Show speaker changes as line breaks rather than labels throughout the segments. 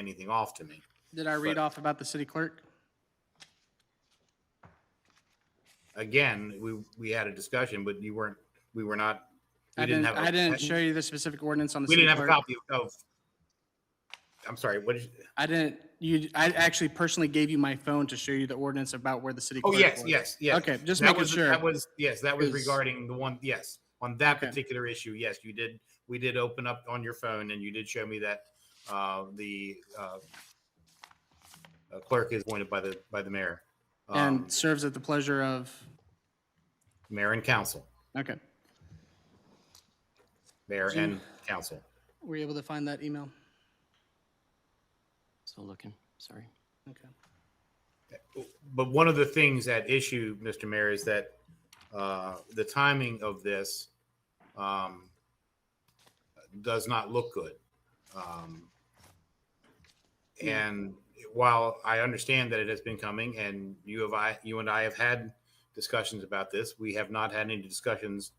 anything off to me.
Did I read off about the city clerk?
Again, we, we had a discussion, but you weren't, we were not, we
I
didn't
didn't,
have. a-
I didn't show you the specific ordinance on the
We
city
didn't have a
clerk.
copy of, I'm sorry, what did you?
I didn't, you, I actually personally gave you my phone to show you the ordinance about where the city
Oh,
clerk
yes,
was.
yes, yes.
Okay, just
That
making
was-
sure.
That was, yes, that was
Because-
regarding the one, yes, on that
Okay.
particular issue, yes, you did, we did open up on your phone and you did show me that uh, the uh, uh, clerk is appointed by the, by the mayor. um,
And serves at the pleasure of,
Mayor and council,
okay.
mayor
Do you-
and council.
Were you able to find that email?
Still looking, sorry.
Okay.
But one of the things at issue, Mr. Mayor, is that uh, the timing of this um, does not look good. Um, And while I understand that it has been coming, and you have, I, you and I have had discussions about this, we have not had any discussions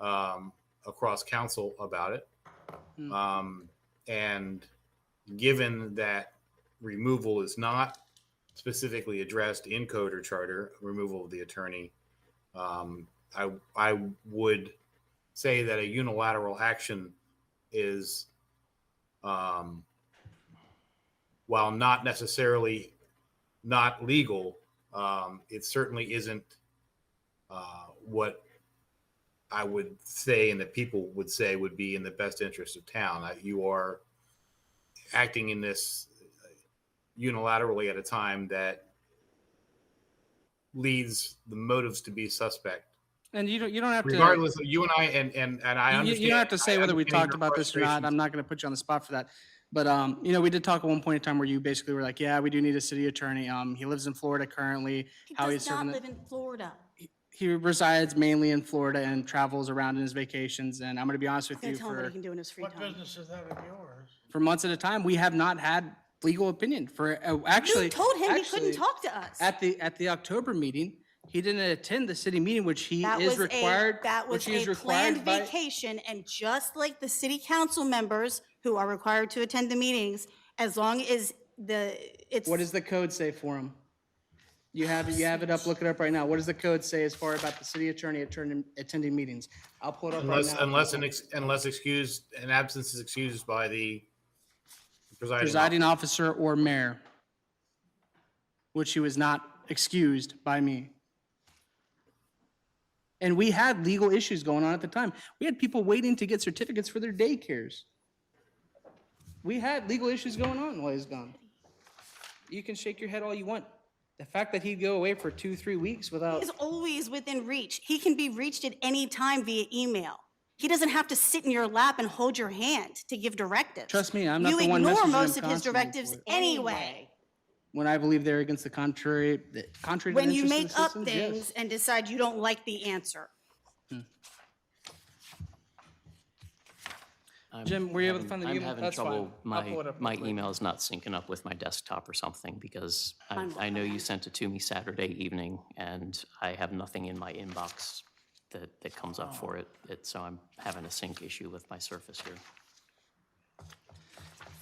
um, across council about it.
Hmm.
Um, And given that removal is not specifically addressed in code or charter removal of the attorney. Um, I I would say that a unilateral action is, um, while not necessarily not legal, um, it certainly isn't uh, what I would say and that people would say would be in the best interest of town. I- You are acting in this unilaterally at a time that leads the motives to be suspect.
And you don't, you don't have to.
Regardless of you and I and and and I
You-
understand.
You don't have to say
I
whether we
understand
talked
your
about this or not.
frustrations.
I'm not going to put you on the spot for that. But, um, you know, we did talk at one point in time where you basically were like, yeah, we do need a city attorney. Um, he lives in Florida currently.
He
How he's
does
serving
not
the-
live in Florida.
He resides mainly in Florida and travels around in his vacations. And I'm going to be honest
I'm
with
gonna
you,
tell him what he
for,
can do in his free
What
time.
business is that of yours?
for months at a time, we have not had legal opinion for, uh, actually.
You told him he
actually,
couldn't talk to us.
At the, at the October meeting, he didn't attend the city meeting, which he
That
is
was a-
required.
That
which
was
he is
a
required
planned
by-
vacation, and just like the city council members who are required to attend the meetings, as long as the, it's.
What does the code say for him? You have, it. you have it up, look it up right now. What does the code say as far about the city attorney attending, attending meetings? I'll pull it up right
Unless
now.
unless an ex, unless excused an absence is excused by the presiding.
Presiding officer or mayor, which he was not excused by me. And we had legal issues going on at the time. We had people waiting to get certificates for their daycares. We had legal issues going on while he was gone. You can shake your head all you want. The fact that he'd go away for two, three weeks without.
He's always within reach. He can be reached at any time via email. He doesn't have to sit in your lap and hold your hand to give directives.
Trust me, I'm not the one
You
messaging
ignore
him
most of his
constantly
directives
for it.
anyway.
when I believe they're against the contrary, the contrary to the
When you
interests of
make
the
up
citizens,
things
yes.
and decide you don't like the answer.
I'm
Jim, were you able to
having-
find the
I'm
email?
having
That's fine.
trouble.
I'll pull it
My,
up
my
later.
email's not syncing up with my desktop or something because I,
Mine will
I know you
come.
sent it to me Saturday evening and I have nothing in my inbox that, that comes
Oh.
up for it. It, so I'm having a sync issue with my Surface here.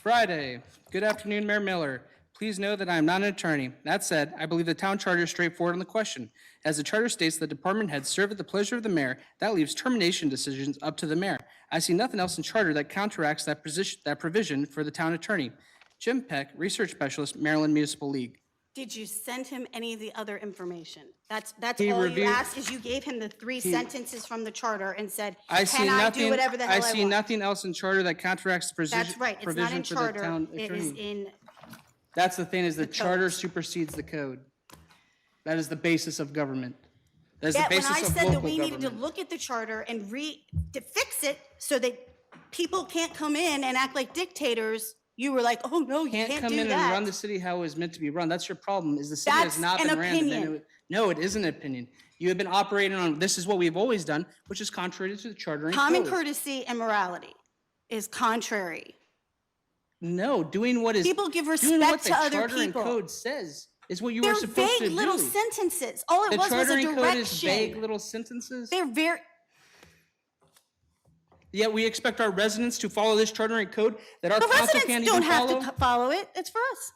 Friday, good afternoon, Mayor Miller. Please know that I am not an attorney. That said, I believe the town charter is straightforward on the question. As the charter states, the department heads serve at the pleasure of the mayor. That leaves termination decisions up to the mayor. I see nothing else in charter that counteracts that position, that provision for the town attorney. Jim Peck, Research Specialist, Maryland Municipal League.
Did you send him any of the other information? That's, that's
He
all you
reviewed-
asked, is you gave him the three sentences from the charter and said,
I see
can I do
nothing,
whatever the
I
hell I
see
want?
nothing else in charter that counteracts the
That's
provision,
right, it's not in
provision for the
charter,
town attorney.
it is in,
That's the thing is the charter
code.
supersedes the code. That is the basis of government. That is the
yet when I
basis of
said that
local
we needed to
government.
look at the charter and re, to fix it so that people can't come in and act like dictators, you were like, oh, no, you
Can't
can't
come
do
in and run
that.
the city how it was meant to be run. That's your problem is the city has
That's
not
an
been ran. the way-
opinion.
No, it isn't an opinion. You have been operating on, this is what we've always done, which is contrary to the charter and
Common
code.
courtesy and morality is contrary.
No, doing what is.
People give
doing what
respect
the
to other
charter and
people.
Code says is what you were
They're
supposed to
vague
do.
little sentences. All
The
it was was
charter
a
and code is vague
direction.
little sentences.
They're very,
Yet we expect our residents to follow this charter and code that our
The
council can't
residents
even
don't have to
follow?
co- follow it. It's for us.